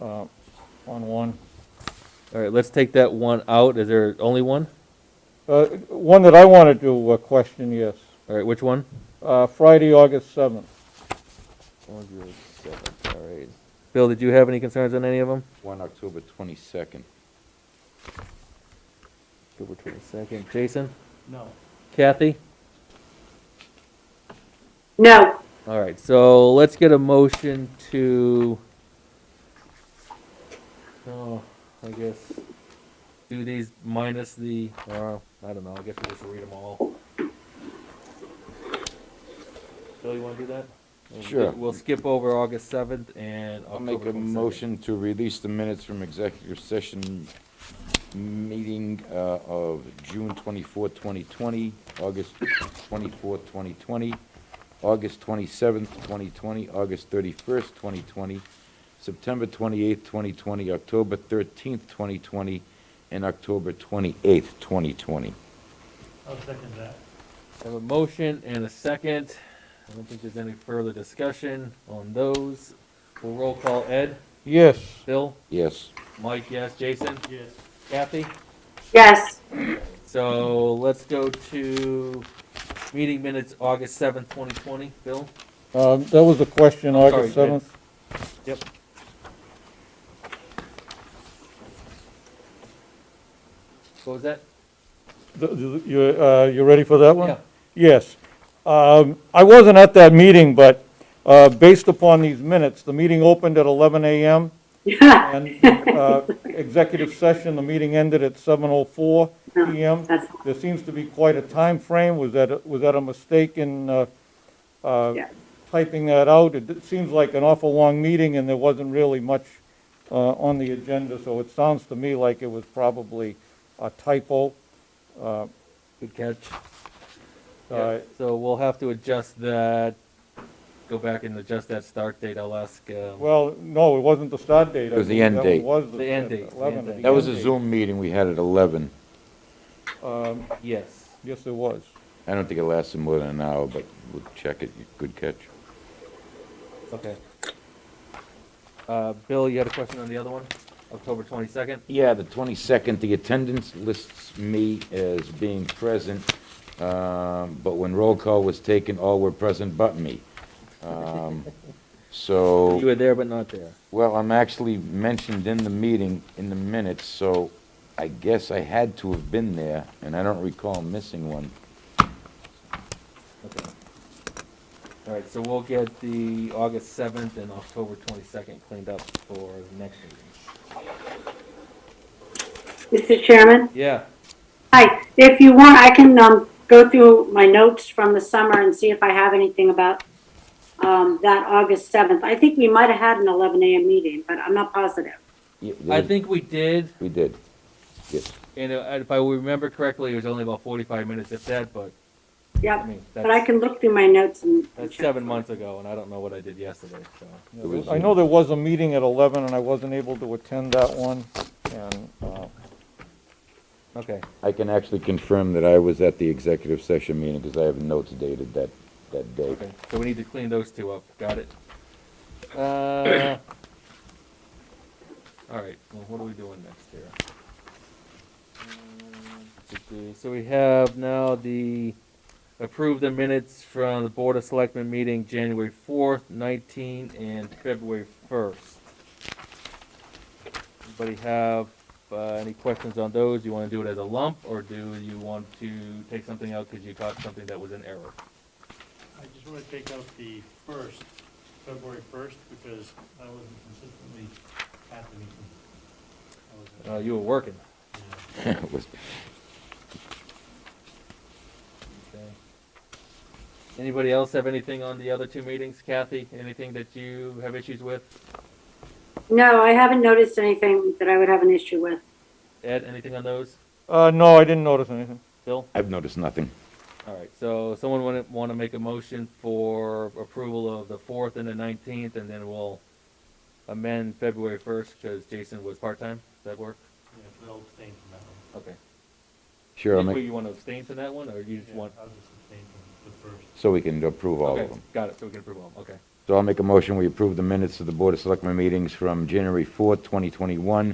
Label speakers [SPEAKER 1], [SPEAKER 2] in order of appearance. [SPEAKER 1] Uh, on one.
[SPEAKER 2] All right, let's take that one out. Is there only one?
[SPEAKER 1] Uh, One that I wanted to uh, question, yes.
[SPEAKER 2] All right, which one?
[SPEAKER 1] Uh, Friday, August 7th.
[SPEAKER 2] One zero seven, all right. Bill, did you have any concerns on any of them?
[SPEAKER 3] One October 22nd.
[SPEAKER 2] October twenty-second. Jason?
[SPEAKER 1] No.
[SPEAKER 2] Kathy?
[SPEAKER 4] No,
[SPEAKER 2] All right, so let's get a motion to, oh, I guess, do these minus the, uh, I don't know, I guess we'll just read them all. Bill, you wanna do that? We'll-
[SPEAKER 3] Sure.
[SPEAKER 2] We'll skip over August seventh and
[SPEAKER 3] I'll make
[SPEAKER 2] October
[SPEAKER 3] a
[SPEAKER 2] 22nd.
[SPEAKER 3] motion to release the minutes from executive session meeting uh, of June 24, 2020, August 24, 2020, August 27, 2020, August 31, 2020, September 28, 2020, October 13, 2020, and October 28, 2020.
[SPEAKER 5] I'll second that.
[SPEAKER 2] I Have a motion and a second. I don't think there's any further discussion on those. We'll roll call Ed,
[SPEAKER 1] Yes,
[SPEAKER 2] Bill,
[SPEAKER 3] Yes.
[SPEAKER 2] Mike, yes, Jason,
[SPEAKER 5] Yes.
[SPEAKER 2] Kathy?
[SPEAKER 4] yes,
[SPEAKER 2] So let's go to meeting minutes, August seventh, twenty twenty, Bill?
[SPEAKER 1] um, that was the question,
[SPEAKER 2] I'm
[SPEAKER 1] August
[SPEAKER 2] sorry, Ed.
[SPEAKER 1] 7th.
[SPEAKER 2] Yep. What was that?
[SPEAKER 1] Th- th- You uh, you ready for that one?
[SPEAKER 2] Yeah.
[SPEAKER 1] Yes. Um, I wasn't at that meeting, but uh, based upon these minutes, the meeting opened at 11 a.m. And uh, executive session, the meeting ended at 7:04 p.m.
[SPEAKER 4] that's-
[SPEAKER 1] There seems to be quite a time frame. Was that, a- was that a mistake in uh, uh,
[SPEAKER 4] Yeah.
[SPEAKER 1] typing that out? It d- seems like an awful long meeting, and there wasn't really much uh, on the agenda, so it sounds to me like it was probably a typo. Uh,
[SPEAKER 2] Good catch.
[SPEAKER 1] uh,
[SPEAKER 2] So we'll have to adjust that, go back and adjust that start date. I'll ask, uh,
[SPEAKER 1] Well, no, it wasn't the start date. I
[SPEAKER 3] It was the
[SPEAKER 1] believe
[SPEAKER 3] end
[SPEAKER 1] that
[SPEAKER 3] date.
[SPEAKER 1] was the
[SPEAKER 2] The end date, the
[SPEAKER 1] 11,
[SPEAKER 2] end
[SPEAKER 1] the
[SPEAKER 2] date.
[SPEAKER 3] That was a
[SPEAKER 1] end date.
[SPEAKER 3] Zoom meeting we had at 11.
[SPEAKER 1] Um,
[SPEAKER 2] yes.
[SPEAKER 1] Yes, it was.
[SPEAKER 3] I don't think it lasted more than an hour, but we'll check it. Good catch.
[SPEAKER 2] Okay. Uh, Bill, you had a question on the other one? October twenty-second?
[SPEAKER 3] Yeah, the 22nd, the attendance lists me as being present, um, but when roll call was taken, all were present but me. Um,
[SPEAKER 2] You
[SPEAKER 3] So,
[SPEAKER 2] were there but not there.
[SPEAKER 3] well, I'm actually mentioned in the meeting, in the minutes, so I guess I had to have been there, and I don't recall missing one.
[SPEAKER 2] Okay. All right, so we'll get the August seventh and October twenty-second cleaned up for the next meeting.
[SPEAKER 4] Mr. Chairman?
[SPEAKER 2] Yeah,
[SPEAKER 4] Hi, if you want, I can, um, go through my notes from the summer and see if I have anything about, um, that August 7th. I think we might have had an 11 a.m. meeting, but I'm not positive.
[SPEAKER 3] Yeah,
[SPEAKER 2] I think we did,
[SPEAKER 3] We did. Yes.
[SPEAKER 2] and uh, if I remember correctly, it was only about forty-five minutes if that, but, I
[SPEAKER 4] Yep,
[SPEAKER 2] mean,
[SPEAKER 4] but I
[SPEAKER 2] that's,
[SPEAKER 4] can look through my notes and. and
[SPEAKER 2] that's
[SPEAKER 4] check.
[SPEAKER 2] seven months ago, and I don't know what I did yesterday, so.
[SPEAKER 1] Yeah,
[SPEAKER 3] It was
[SPEAKER 1] I know there was a meeting at 11, and I wasn't able to attend that one, and, uh,
[SPEAKER 2] Okay,
[SPEAKER 3] I can actually confirm that I was at the executive session meeting, because I have notes dated that, that day.
[SPEAKER 2] okay, so we need to clean those two up, got it? Uh, all right, well, what are we doing next here? Um, let's see. So we have now the approve the minutes from the Board of Selectmen meeting January fourth, nineteen, and February first. Anybody have, uh, any questions on those? You wanna do it as a lump, or do you want to take something out because you caught something that was an error?
[SPEAKER 5] I just want to take out the first, February first, because I wasn't consistently at the meeting. I was at-
[SPEAKER 2] Uh, you were working.
[SPEAKER 5] yeah.
[SPEAKER 3] It was-
[SPEAKER 2] Okay. Anybody else have anything on the other two meetings? Kathy, anything that you have issues with?
[SPEAKER 4] No, I haven't noticed anything that I would have an issue with.
[SPEAKER 2] Ed, anything on those?
[SPEAKER 1] uh, no, I didn't notice anything.
[SPEAKER 2] Bill?
[SPEAKER 3] I've noticed nothing.
[SPEAKER 2] All right, so someone want to, want to make a motion for approval of the fourth and the nineteenth, and then we'll amend February first, because Jason was part-time. Does that work?
[SPEAKER 5] Yeah, we all abstained from that one.
[SPEAKER 2] Okay.
[SPEAKER 3] Sure, I'll
[SPEAKER 2] Wait,
[SPEAKER 3] make,
[SPEAKER 2] You want to abstain from that one, or you just
[SPEAKER 5] Yeah,
[SPEAKER 2] want?
[SPEAKER 5] I was just abstaining from the first.
[SPEAKER 3] so we can approve all
[SPEAKER 2] Okay,
[SPEAKER 3] of them.
[SPEAKER 2] got it, so we can approve all, of 'em, okay.
[SPEAKER 3] So I'll make a motion, we approve the minutes of the Board of Selectmen meetings from January 4th, 2021,